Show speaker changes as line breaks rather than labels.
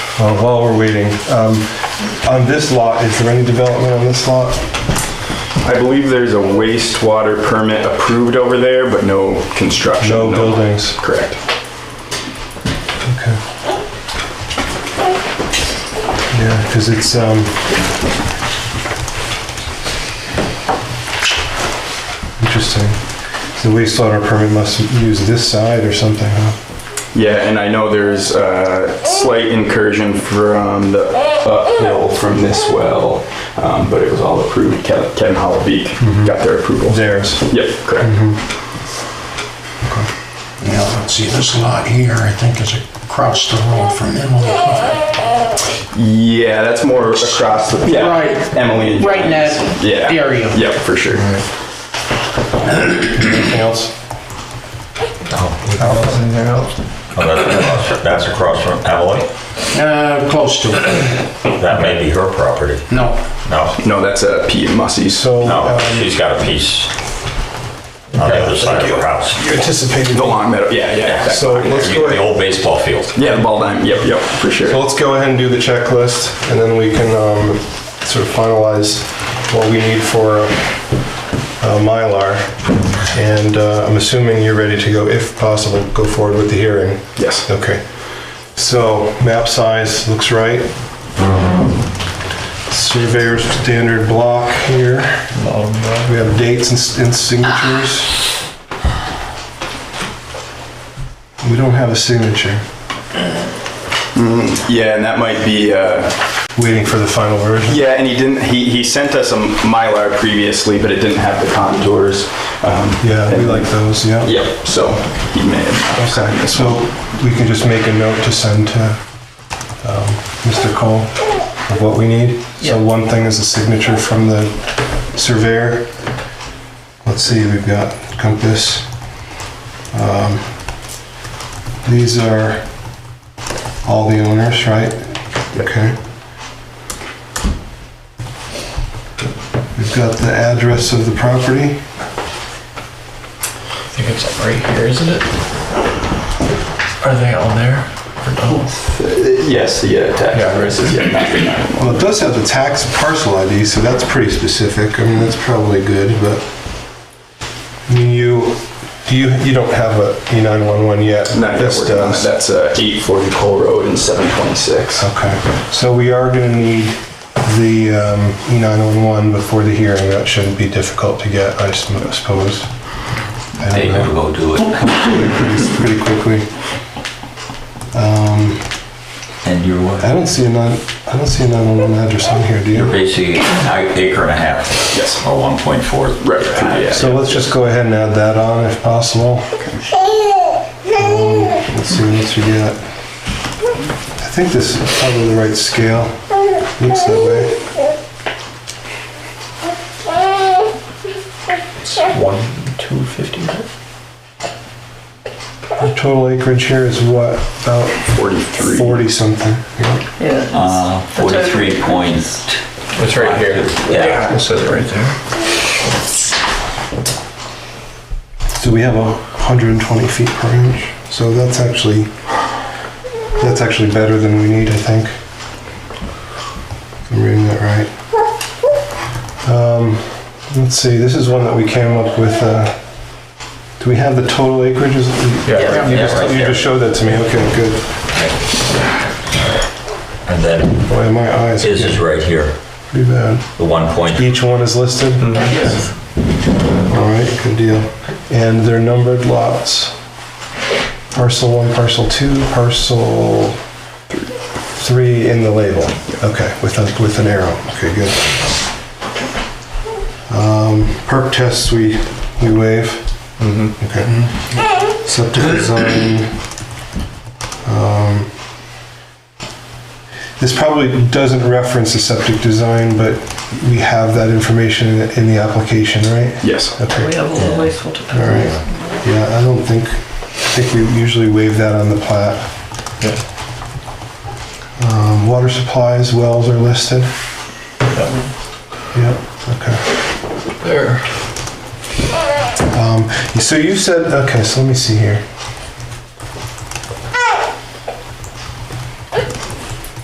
Uh, While we're waiting, um, on this lot, is there any development on this lot?
I believe there's a wastewater permit approved over there, but no construction.
No buildings?
Correct.
Okay. Yeah, because it's, um... Interesting. The wastewater permit must use this side or something, huh?
Yeah, and I know there's a slight incursion from the uphill from this well, um, but it was all approved. Ke- Kevin Hollow Beak
Mm-hmm.
got their approval.
Theirs.
Yep, correct.
Mm-hmm.
Yeah, let's see, this lot here, I think is across the road from Emily Clyde.
Yeah, that's more across the, yeah.
Right.
Emily and.
Right in that
John's. Yeah.
area.
Yep, for sure.
Anything else? Anything else?
Oh, that's across- That's across from Emily.
Uh, close to it.
That may be her property.
No,
No,
No, that's a P and Mussey's.
So,
no,
um,
she's got a piece on the other side of her house.
you anticipated...
The long meadow, yeah, yeah. that-
So let's go
The
ahead...
old baseball field.
Yeah, the ball diamond, yep, yep, for
So
sure.
let's go ahead and do the checklist, and then we can um, sort of finalize what we need for uh, Mylar. And uh, I'm assuming you're ready to go, if possible, go forward with the hearing.
Yes.
Okay. So map size looks right. Surveyor's standard block here. We have dates and s- and signatures. We don't have a signature.
Yeah, and that might be, uh,
Waiting for the final version.
yeah, and he didn't, he, he sent us a Mylar previously, but it didn't have the contours. um,
Yeah, we
and-
like those, yeah.
Yep, so he may have.
Okay, so we can just make a note to send to um, Mr. Cole of what we need. So one thing is a signature from the surveyor. Let's see, we've got compass. Um, These are all the owners, right? Okay. We've got the address of the property.
I think it's right here, isn't it? Are they all there? Or no?
Yes, the uh, tax address is, yeah, 939.
Well, it does have the tax parcel ID, so that's pretty specific. I mean, that's probably good, but, I mean, you, do you, you don't have a E E911 yet?
No, yeah,
This
we're done.
does.
That's uh, 840 Cole Road and 726.
Okay, so we are gonna need the um, E911 before the hearing. That shouldn't be difficult to get, I sm- suppose. I don't know.
go do it.
pretty pretty quickly. Um,
And you're
I don't see a nine, I don't see a 911 address on here, do you?
Basically, an acre and a half.
Yes.
Or 1.4.
Right, right, yeah.
So let's just go ahead and add that on if possible. Um, Let's see what else we got. I think this is probably the right scale. Looks that way.
One, two, fifty.
Our total acreage here is what, about
43.
40 something? Yeah.
Uh, 43 point.
It's right here.
Yeah.
It says it right there.
So we have a 120 feet per inch. So that's actually, that's actually better than we need, I think. If I'm reading that right. Um, Let's see, this is one that we came up with, uh, do we have the total acreages?
Yeah.
You
Yeah,
just,
right
you
there.
just showed that to me, okay, good.
And then
Boy, my eyes are
his is
getting
right here,
pretty bad.
the 1.4.
Each one is listed? All right, good deal. And they're numbered lots. Parcel one, parcel two, parcel three in the label. Okay, with a, with an arrow. Okay, good. Um, perk tests, we, we waive. Okay. Septic design. um, This probably doesn't reference the septic design, but we have that information in the- in the application, right?
Yes.
Okay.
We have all the wastewater
All right,
plants.
yeah, I don't think, I think we usually waive that on the plat.
Yeah.
Um, water supplies, wells are listed. Yep, okay.
There.
Um, so you said, okay, so let me see here.